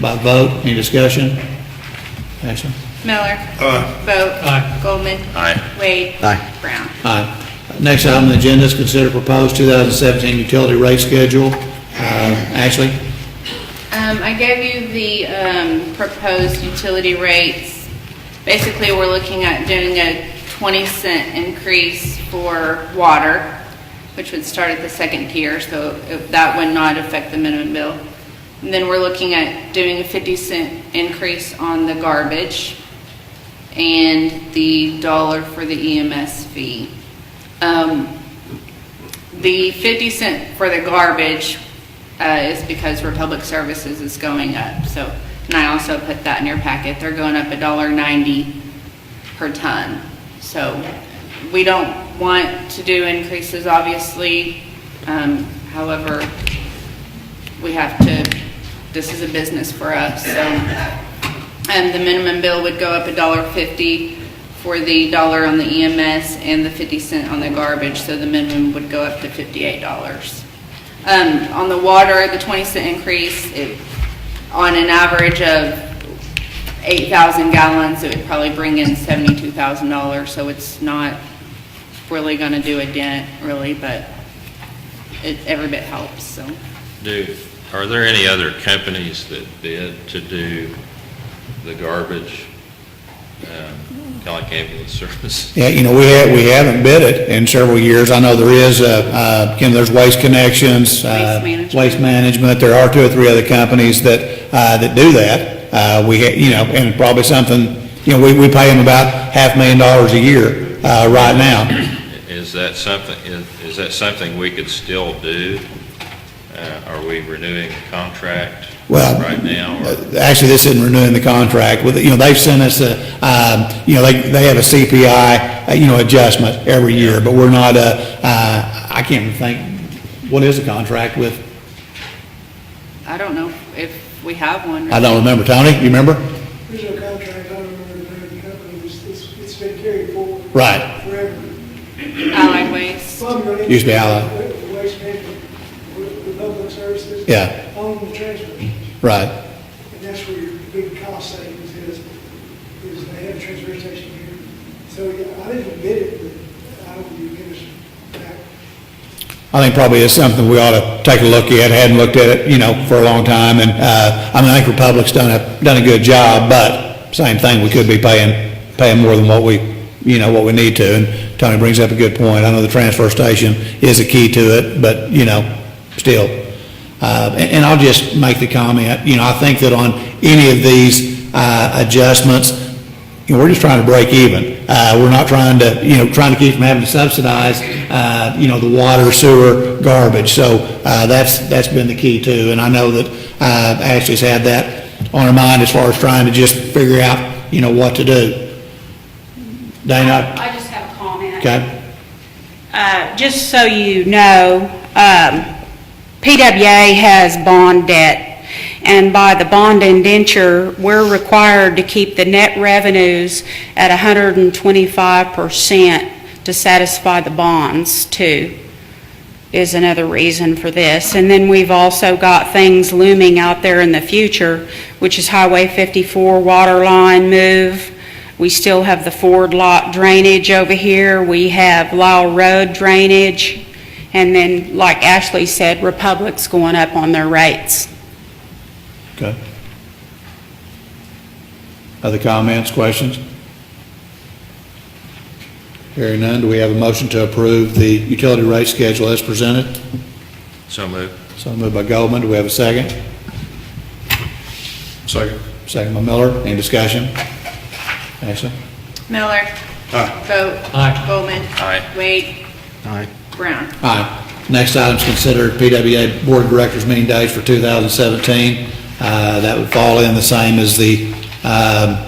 by vote. Any discussion? Ashley? Miller. Aye. Vote. Aye. Goldman. Aye. Wade. Aye. Brown. Aye. Next item on the agenda is consider proposed 2017 utility rate schedule. Uh, Ashley? Um, I gave you the, um, proposed utility rates. Basically, we're looking at doing a twenty cent increase for water, which would start at the second tier, so if- that would not affect the minimum bill. And then we're looking at doing a fifty cent increase on the garbage and the dollar for the EMS fee. Um, the 50 cent for the garbage uh, is because Republic Services is going up, so, and I also put that in your packet, they're going up a dollar ninety per ton. So we don't want to do increases, obviously, um, however, we have to, this is a business for us, so. And the minimum bill would go up a dollar fifty for the dollar on the EMS and the fifty cent on the garbage, so the minimum would go up to fifty-eight dollars. Um, on the water, the twenty cent increase, it, on an average of eight thousand gallons, it would probably bring in seventy-two thousand dollars, so it's not really gonna do a dent, really, but it, every bit helps, so. Do, are there any other companies that bid to do the garbage? Kind of like ambulance service? Yeah, you know, we ha we haven't bid it in several years. I know there is, uh, uh, Kim, there's Waste Connections. uh, Waste Management. Waste Management. There are two or three other companies that, uh, that do that. Uh, we, ha you know, and probably something, you know, we, we pay them about half million dollars a year, uh, right now. Is that something, is is that something we could still do? Uh, Are we renewing the contract Well, right now? or- Uh, Actually, this isn't renewing the contract with, you know, they've sent us a, um, you know, they, they have a CPI, uh, you know, adjustment every year, but we're not, uh, uh, I can't even think, what is the contract with, I don't know if we have one. I don't remember, Tony, you remember? There's no contract, I don't remember the name of the company, it's, it's- it's been carried forward. Right. Forever. Allied Waste. Some money- Used to be Allied. uh, Waste management, with, with public services. Yeah. On the transfer, and Right, that's where your big cost savings is, is they have a transfer station here. So, yeah, I didn't bid it, but I would be interested back. I think probably is something we ought to take a look at, hadn't looked at it, you know, for a long time, and, uh, I mean, I think Republic's done a, done a good job, but same thing, we could be paying, paying more than what we, you know, what we need to, and Tony brings up a good point, I know the transfer station is a key to it, but, you know, still. Uh, and, and I'll just make the comment, you know, I think that on any of these, uh, adjustments, you know, we're just trying to break even. Uh, we're not trying to, you know, trying to keep from having to subsidize, uh, you know, the water, sewer, garbage. So, uh, that's, that's been the key too. And I know that, uh, Ashley's had that on her mind as far as trying to just figure out, you know, what to do. Dana? I just have a comment. Okay. Uh, Just so you know, um, PWA has bond debt, and by the bond indenture, we're required to keep the net revenues at 125% to satisfy the bonds, too, is another reason for this. And then we've also got things looming out there in the future, which is Highway 54 water line move. We still have the Ford lot drainage over here. We have Lyle Road drainage. And then, like Ashley said, Republic's going up on their rates. Okay. Other comments, questions? Hearing none, do we have a motion to approve the utility rate schedule as presented? So moved. So moved by Goldman, do we have a second? Second. Second by Miller, any discussion? Ashley? Miller. Vote. Aye. Goldman. Aye. Wade. Aye. Brown. Aye. Next item is considered PWA Board of Directors meeting days for 2017. Uh, That would fall in the same as the um,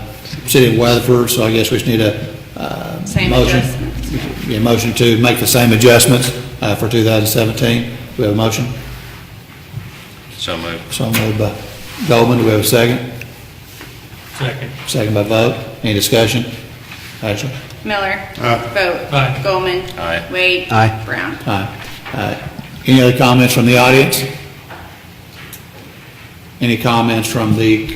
City of Weatherford, so I guess we just need a uh, Same motion. adjustments. Yeah, motion to make the same adjustments uh, for 2017. Do we have a motion? So moved. So moved by Goldman, do we have a second? Second. Second by vote. Any discussion? Ashley? Miller. Vote. Aye. Goldman. Aye. Wade. Aye. Brown. uh, Aye. Uh, Any other comments from the audience? Any comments from the